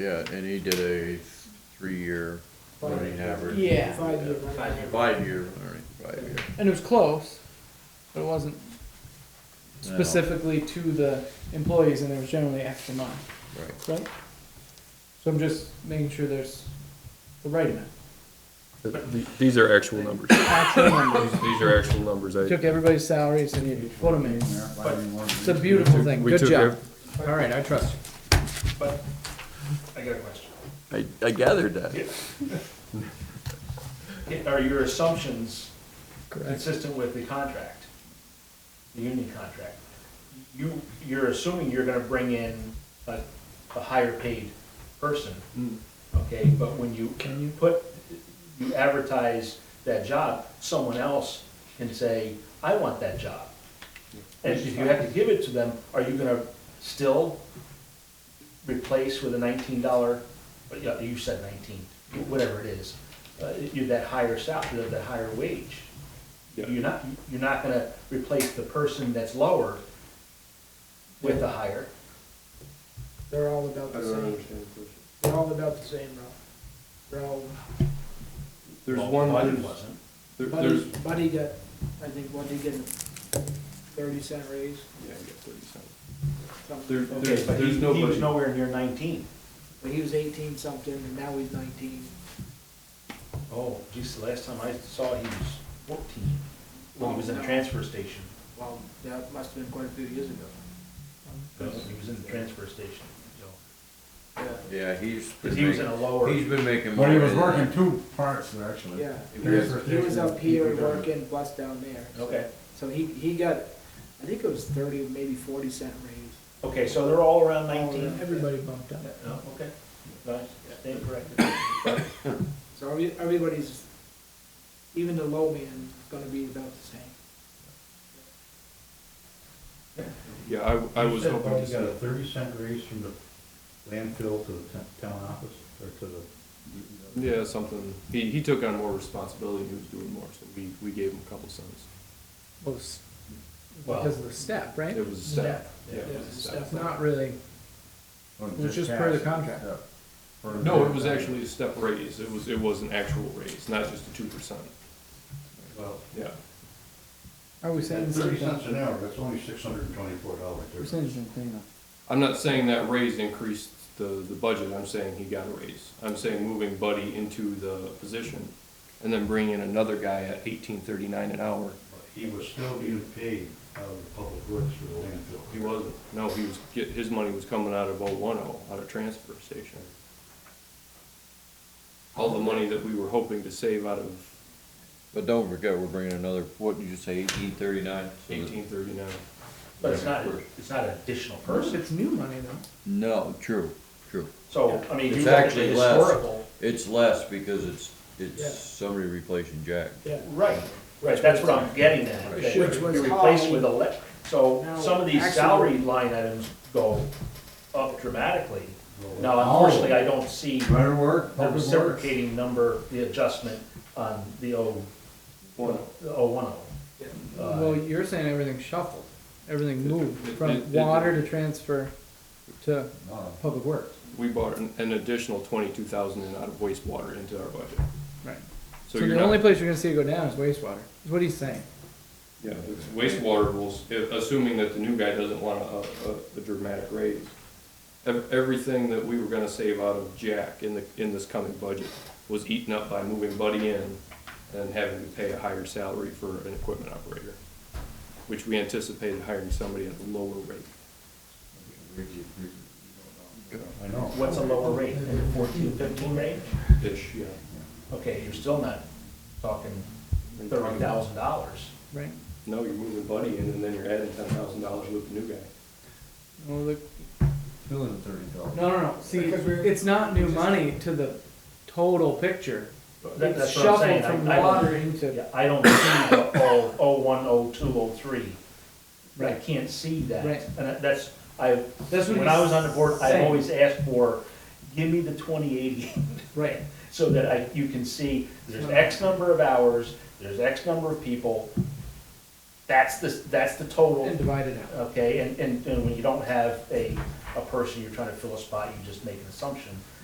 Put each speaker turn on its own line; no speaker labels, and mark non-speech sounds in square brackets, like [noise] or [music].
Yeah, and he did a three-year running average.
Yeah.
Five year, right?
Five-year, all right, five-year.
And it was close, but it wasn't
No,
specifically to the employees, and there was generally extra money,
Right,
right? So I'm just making sure there's the right amount.
Th- These are actual numbers.
[coughs] Actual numbers.
These are actual numbers. I-
Took everybody's salaries and you put them in.
But,
It's a beautiful thing.
we
Good
took
job. All right, I trust you.
but, I got a question.
I, I gathered that.
Are your assumptions
Correct.
consistent with the contract? The union contract? You, you're assuming you're gonna bring in a, a higher paid person, okay? But when you, can you put, you advertise that job, someone else can say, I want that job. And if you have to give it to them, are you gonna still replace with a nineteen dollar, yeah, you said nineteen, whatever it is, uh, you, that higher salary, that higher wage? You're not, you're not gonna replace the person that's lower with the higher.
They're all about the same, they're all about the same, Ralph. They're all,
There's
Well,
one,
Buddy
there's,
wasn't.
there-
Buddy,
there's.
Buddy got, I think, what, he get a thirty cent raise?
yeah, I got 30 cents.
something?
There-
Okay,
there's,
but he,
there's
he was
nobody,
nowhere near nineteen.
But he was eighteen something, and now he's nineteen.
Oh, geez, the last time I saw, he was fourteen, when he was in the
Well, no.
transfer station.
Well, that must have been quite a few years ago.
He was in the transfer station, so,
Yeah,
yeah, he's
cause
been
he was in a
making,
lower,
he's been making more.
But he was
than that.
working two parts, actually.
yeah.
If
He
you're-
was- He was up here working, plus down there.
okay.
So he, he got, I think it was thirty, maybe forty cent raise.
Okay, so they're all around nineteen?
Everybody bumped up.
No, okay, nice, stand
[laughs]
corrected.
So every- everybody's, even the low man is gonna be about the same.
Yeah, I, I was
You said
hoping to
Buddy
see.
got a thirty cent raise from the landfill to the t- town office, or to the.
Yeah, something. He, he took on more responsibility. He was doing more, so we, we gave him a couple cents.
Well, s-
Well,
Because of the step, right?
It was a step. Yeah, it was a step.
It's not really,
Or
It was just per the
taxes,
contract.
yeah. Per the
No, it was
contract.
actually a step raise. It was, it was an actual raise, not just a two percent.
Well,
Yeah.
are we saying
thirty cents
something?
an hour, that's only six hundred and twenty-four dollars.
Percentage and clean up.
I'm not saying that raise increased the, the budget, I'm saying he got a raise. I'm saying moving Buddy into the position and then bringing in another guy at eighteen thirty-nine an hour.
He was still being paid out of the public works for the landfill.
He wasn't, no, he was, get- his money was coming out of oh one oh, out of transfer station. All the money that we were hoping to save out of
But don't forget, we're bringing another, what did you say, eighteen thirty-nine?
eighteen thirty-nine.
But it's not, it's not an additional person,
It's new money though.
No, true, true.
so, I mean,
It's
you look at the
actually less.
historical.
It's less because it's, it's
Yeah.
somebody replacing Jack.
Right, right, that's what I'm getting at.
Right.
that
Which was
You're replaced
how-
with a le, so
Now,
some of these
actually-
salary line items go up dramatically.
Well,
Now, unfortunately, I don't see the
Better work, public works.
reciprocating number, the adjustment on the O, the O one
Well,
oh.
you're saying everything shuffled, everything moved
Uh, it- it-
from
it-
water to transfer to
no,
public works.
We brought an, an additional twenty-two thousand in out of wastewater into our budget.
Right.
So
So
you're
the
not.
only place you're gonna see it go down is wastewater, is what he's saying.
Yeah, it's wastewater rules, i- assuming that the new guy doesn't want a, a, a dramatic raise. Ev- Everything that we were gonna save out of Jack in the, in this coming budget was eaten up by moving Buddy in and having to pay a higher salary for an equipment operator, which we anticipated hiring somebody at a lower rate.
I know.
What's a lower rate, in the fourteen, fifteen range?
Ish, yeah.
Okay, you're still not talking
Are you
thirty
talking about-
thousand dollars.
Right.
No, you're moving Buddy in and then you're adding ten thousand dollars with the new guy.
Well, look,
Still in the thirty dollars.
no, no, no, see,
Because we're-
it's not new money to the total picture. It's
That's what I'm
shuffled
saying. I-
from
I don't-
water into,
Yeah, I don't see the oh, oh one, oh two, oh three. I
Right.
can't see that.
Right.
And that's, I,
That's what
when I
he's
was on the board, I
saying.
always asked for, give me the twenty eighty, [laughs]
right,
so that I, you can see, there's X number of hours, there's X number of people. That's the, that's the total
and divided out.
okay, and, and, and when you don't have a a person, you're trying to fill a spot, you just make an assumption.